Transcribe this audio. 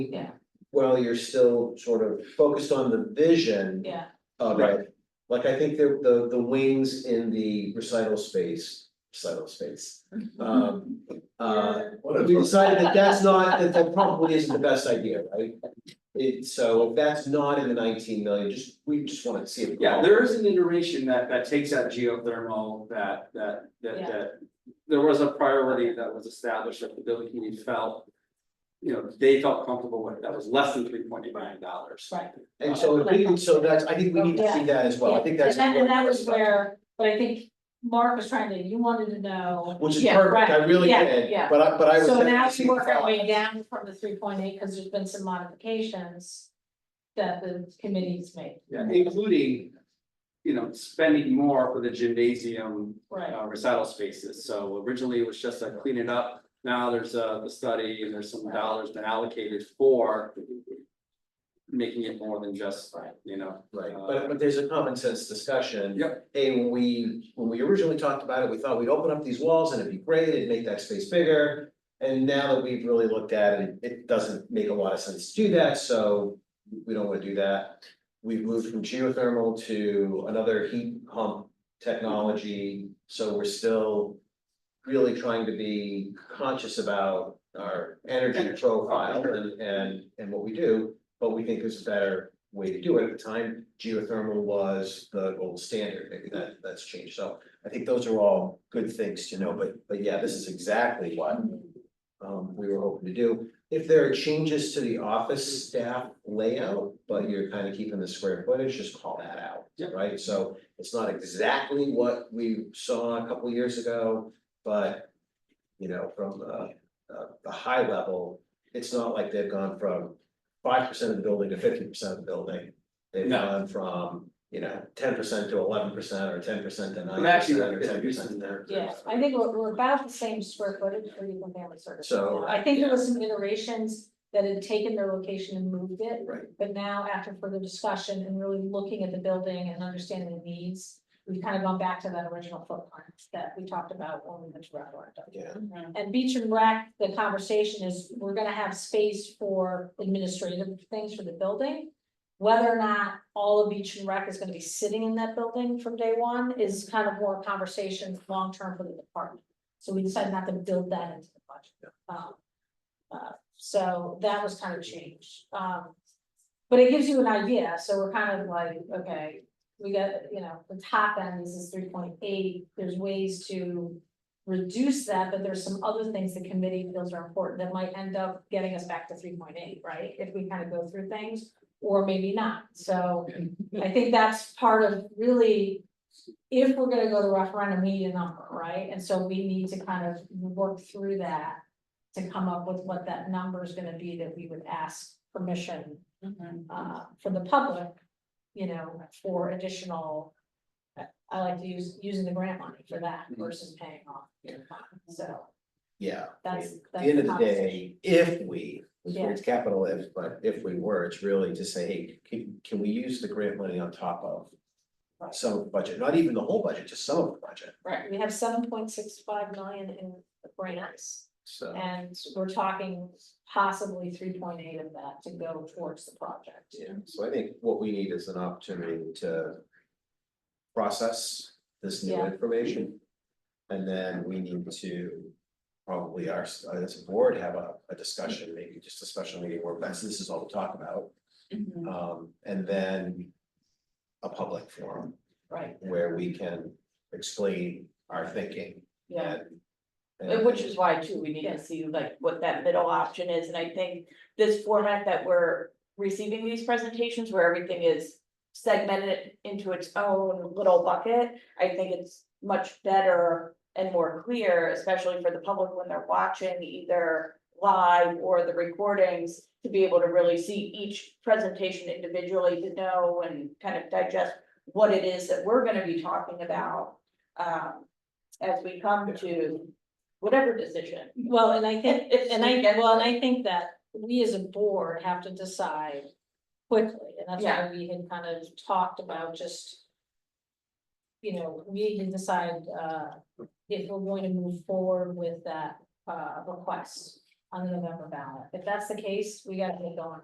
Yeah. While you're still sort of focused on the vision Yeah, of it. Like I think the the the wings in the recital space, recital space. Mm-hmm. Um uh we decided that that's not, that that probably isn't the best idea, right? It so if that's not in the nineteen million, just we just wanna see it. Yeah, there is an iteration that that takes out geothermal, that that that Yeah. that. There was a priority that was established that the building community felt. You know, they felt comfortable with, that was less than three point eight million dollars. right. And so if we can, so that's, I think we need to see that as well, I think that's. And that, and that was where, but I think Mark was trying to, you wanted to know. Which is Yeah, perfect, right. I really Yeah, did, yeah. but I, but I was. So happy now to see we work our the way thought. down from the three point eight, because there's been some modifications that the committee's made, Yeah, including. You know, spending more for the gymnasium right? uh, recital spaces, so originally it was just a clean it up. Now there's uh the study and there's some dollars been allocated for. Making it more than just, Right. you know. Right, uh, but but there's a common sense discussion. Yep. Hey, when we, when we originally talked about it, we thought we'd open up these walls and it'd be great, it'd make that space bigger. And now that we've really looked at it, it doesn't make a lot of sense to do that, so we don't wanna do that. We've moved from geothermal to another heat pump technology, so we're still. Really trying to be conscious about our energy profile and and and what we do. But we think there's a better way to do it. At the time, geothermal was the gold standard. Maybe that that's changed. So I think those are all good things to know, but but yeah, this is exactly what um we were hoping to do. If there are changes to the office staff layout, but you're kind of keeping the square footage, just call that out, Yep. right? So it's not exactly what we saw a couple years ago, but you know, from uh uh the high level, it's not like they've gone from five percent of the building to fifty percent of the building. They've No. gone from, you know, ten percent to eleven percent or ten percent to nine But actually, percent or there's ten a use percent. in there. Yeah, I think we're, we're about the same square footage for Cleveland Family Services. So, now. I think there was some iterations that had taken their location and moved it. Right. But now after further discussion and really looking at the building and understanding the needs, we've kind of gone back to that original footprint that we talked about when we went to referendum. Yeah, And Beach and Rec, the conversation is, we're gonna have space for administrative things for the building. Whether or not all of Beach and Rec is gonna be sitting in that building from day one is kind of more a conversation long-term for the department. So we decided not to build that into the budget. Um, uh, so that was kind of changed, um. But it gives you an idea, so we're kind of like, okay, we got, you know, the top end is three point eight, there's ways to reduce that, but there's some other things the committee feels are important that might end up getting us back to three point eight, right? If we kind of go through things, or maybe not, so I think that's part of really. If we're gonna go to referendum, we need a number, right? And so we need to kind of work through that. To come up with what that number is gonna be that we would ask permission uh, from the public, you know, for additional. I- I like to use, using the grant money for that Mm-hmm. Mhm. versus paying off, your fund. so yeah. I mean, that's, At that's. the end of the conversation. day, if we, Yeah. it's capital if, but if we were, it's really to say, hey, can, can we use the grant money on top of Right. some of the budget, not even the whole budget, just some of the budget, Right, we have seven point six five million in grants, so. and we're talking possibly three point eight of that to go towards the project. Yeah, so I think what we need is an opportunity to process this new Yeah. information. And then we need to probably our, as a board, have a, a discussion, maybe just a special meeting where that's, this is all we talk about. Mm-hmm. Um, and then a public forum Right, where we can explain our thinking Yeah, and- and and. which is why too, we need Yeah. to see like what that middle option is, and I think this format that we're receiving these presentations where everything is. Segmented into its own little bucket, I think it's much better and more clear, especially for the public when they're watching either. Live or the recordings, to be able to really see each presentation individually to know and kind of digest what it is that we're gonna be talking about. Um, as we come to whatever decision. well, and I think, It's and I, like- well, and I think that we as a board have to decide quickly, and that's why we had kind of talked about just. You know, we can decide, uh, if we're going to move forward with that, uh, request. on the November ballot. If that's the case, we gotta get going.